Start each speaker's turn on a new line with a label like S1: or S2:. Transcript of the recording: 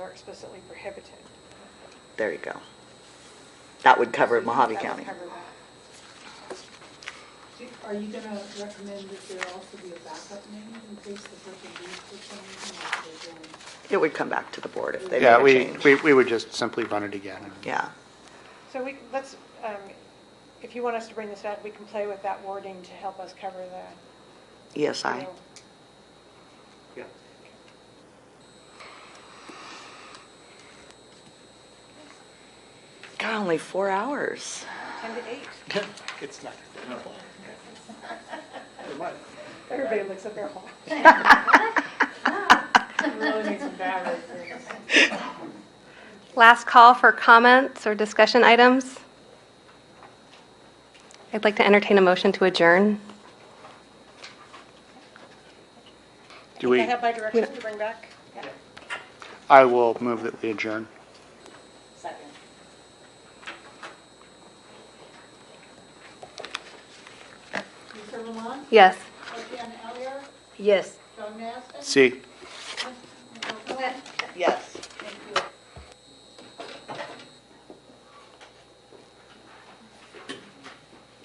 S1: explicitly prohibited.
S2: There you go. That would cover Mojave
S1: That would
S2: County.
S1: cover that.
S3: Are you gonna recommend that there also be a backup name in case the person leaves for some reason after they're done?
S2: It would come back to the board if they made
S4: Yeah,
S2: a
S4: we,
S2: change.
S4: we we would just simply run it again. and-
S2: Yeah,
S1: So we, let's, um, if you want us to bring this out, we can play with that wording to help us cover the.
S2: ESI.
S5: Yeah.
S2: God, only four hours.
S1: 10 to 8.
S4: It's not.
S1: Everybody looks at their watch. Really needs some battery for this.
S6: Last call for comments or discussion items. I'd like to entertain a motion to adjourn.
S4: Do we,
S1: I have my directions to bring back?
S4: I will move that we adjourn.
S3: Mr. Lamont,
S6: Yes.
S3: Roxanne Alviar,
S6: Yes.
S3: John Maston?
S4: See?
S2: Yes.